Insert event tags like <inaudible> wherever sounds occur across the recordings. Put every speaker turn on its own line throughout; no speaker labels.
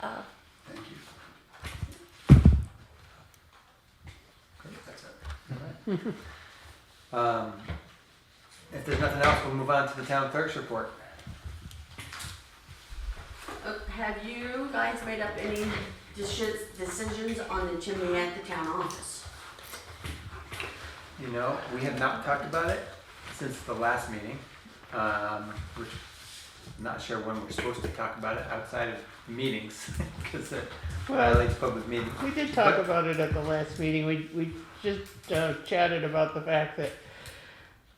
of.
Thank you. Great, that's it. All right. Um, If there's nothing else, we'll move on to the town clerk's report.
Uh, Have you guys made up any deci- decisions on the chimney at the town office?
You know, we have not talked about it since the last meeting. Um, we're not sure when we're supposed to talk about it outside of meetings, <laughs> uh, because it violates public meetings.
We did talk about it at the last meeting. We, we just uh, chatted about the fact that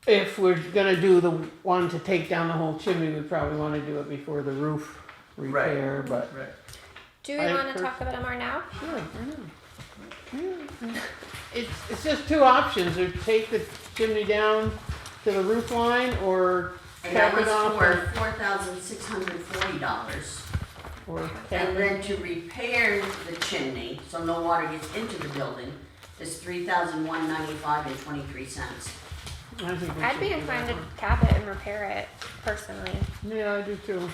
if we're gonna do the one to take down the whole chimney, we probably wanna do it before the roof repair, but.
Right.
Do we
I
want to
pers-
talk about it more now?
Sure, why not? Yeah. It's, it's just two options, or take the chimney down to the roof line, or
And that
cap
was
it off,
for four thousand six hundred forty dollars.
or cap it.
And then to repair the chimney, so no water gets into the building, is three thousand one ninety-five and twenty-three cents.
I think we
I'd
should
be
do
inclined
that
to cap it and repair it personally.
one. Yeah, I do too.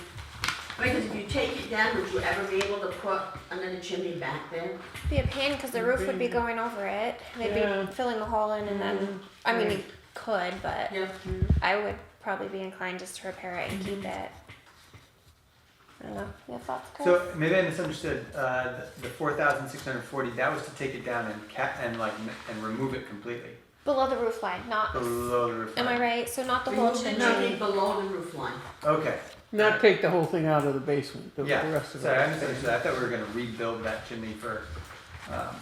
Because if you take it down, would you ever be able to put another chimney back there?
Be a pain because the roof would be going over it. They'd
Yeah.
be filling the hole in, and then I mean, you could, but
Yeah.
I would probably be inclined just to repair it and keep it. I don't know. You have thoughts, Chris?
So maybe I misunderstood. Uh, the, the four thousand six hundred forty. That was to take it down and ca and like n- and remove it completely
Below the roof line, not.
below the roof.
Am I
line.
right? So not the whole
Remove the chimney
chimney.
below the roof line.
Okay.
Not take the whole thing out of the basement, the the
Yeah.
rest of it.
Sorry, I misunderstood. I thought we were going to rebuild that chimney for, um,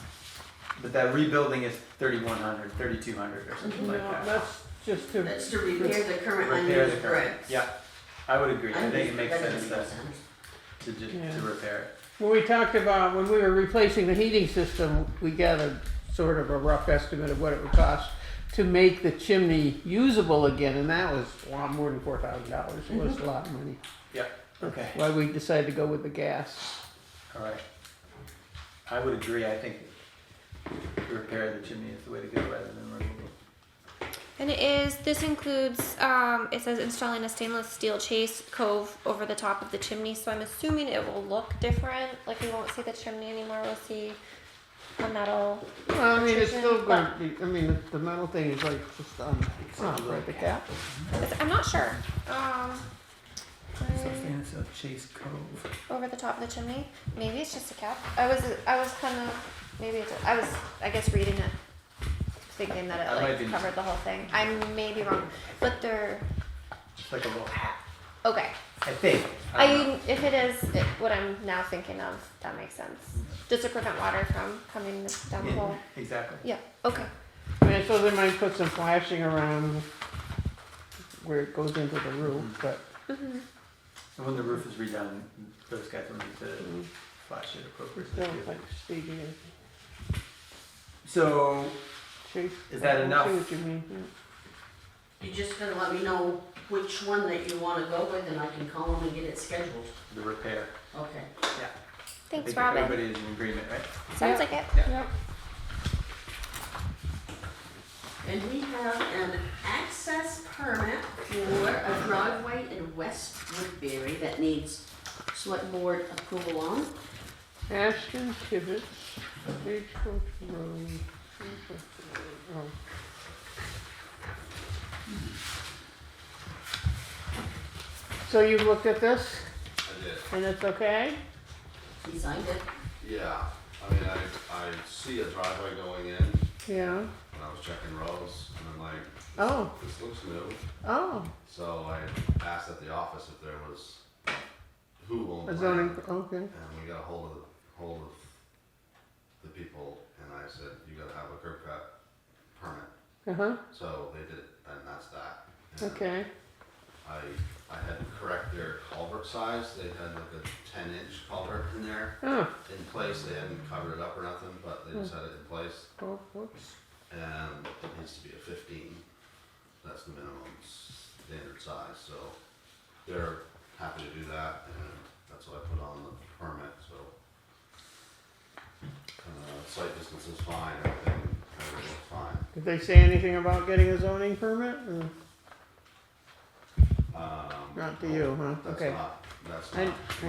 but that rebuilding is thirty one hundred, thirty two hundred, or something
No,
like that.
that's just to.
That's to repair the current
Repair the
unused
current.
bricks.
Yeah, I would agree. I think it
Unused-
makes
that
sense
doesn't
that,
make sense.
to just
Yeah.
to repair it.
When we talked about, when we were replacing the heating system, we gathered sort of a rough estimate of what it would cost to make the chimney usable again, and that was a lot more than four thousand dollars, it was a lot of money.
Yeah. Mm-hmm. Okay.
Why we decided to go with the gas.
All right. I would agree. I think repair of the chimney is the way to go rather than remove it.
And it is, this includes, um, it says installing a stainless steel chase cove over the top of the chimney. So I'm assuming it will look different. Like we won't see the chimney anymore. We'll see a metal.
Well, I mean, it's still
Precision,
gonna be, I mean, the- the metal thing is like just on, it's not right the cap.
it's- I'm not sure. Um, I-
Something of Chase Cove.
over the top of the chimney. Maybe it's just a cap. I was, I was kind of, maybe it's, I was, I guess reading it, thinking that
I
it
might
like
be-
covered the whole thing. I may be wrong, but they're
It's like a little hat.
okay.
I think.
I
don't know.
mean, if it is it, what I'm now thinking of, that makes sense. Just to prevent water from coming down the hole.
Yeah, exactly.
Yeah. Okay.
I mean, so they might put some flashing around where it goes into the roof,
Mm-hmm.
but
Mm-hmm.
And when the roof is redone, those guys will need to flash it
uh, we're
appropriately.
still
too.
like speaking of
So,
chase.
Is that enough?
I see what you mean, yeah.
You just gotta let me know which one that you wanna go with and I can call them and get it scheduled.
the repair.
Okay.
I
Thanks,
think
Robin.
Everybody is in agreement, right?
Sounds like it.
Yep.
And we have an access permit for a driveway in West Woodbury that needs select board approval on.
Ashton Tibbetts, Stagecoach Road. Stagecoach Road, oh. So you've looked at this
I did.
and it's okay?
He signed it.
Yeah, I mean, I, I see a driveway going in, and
Yeah,
I was checking rows, and I'm like,
oh,
this looks new.
oh,
So I asked at the office if there was, who owned
a
land.
zoning, okay.
And we got a hold of, hold of the people, and I said, you gotta have a curb cut permit.
Uh-huh,
So they did, it, and that's that. And
okay,
I, I had to correct their culvert size, they had like a ten inch culvert in there.
oh,
in place. They hadn't covered it up or nothing, but they
Hmm.
just had it in place.
oh, whoops,
And it needs to be a fifteen. That's the minimum standard size, so they're happy to do that and that's what I put on the permit, so. Uh, site distance is fine, everything, everything looks fine.
did they say anything about getting a zoning permit? Mm,
Um,
Not to you, huh,
That's
okay.
not, that's
I-
not.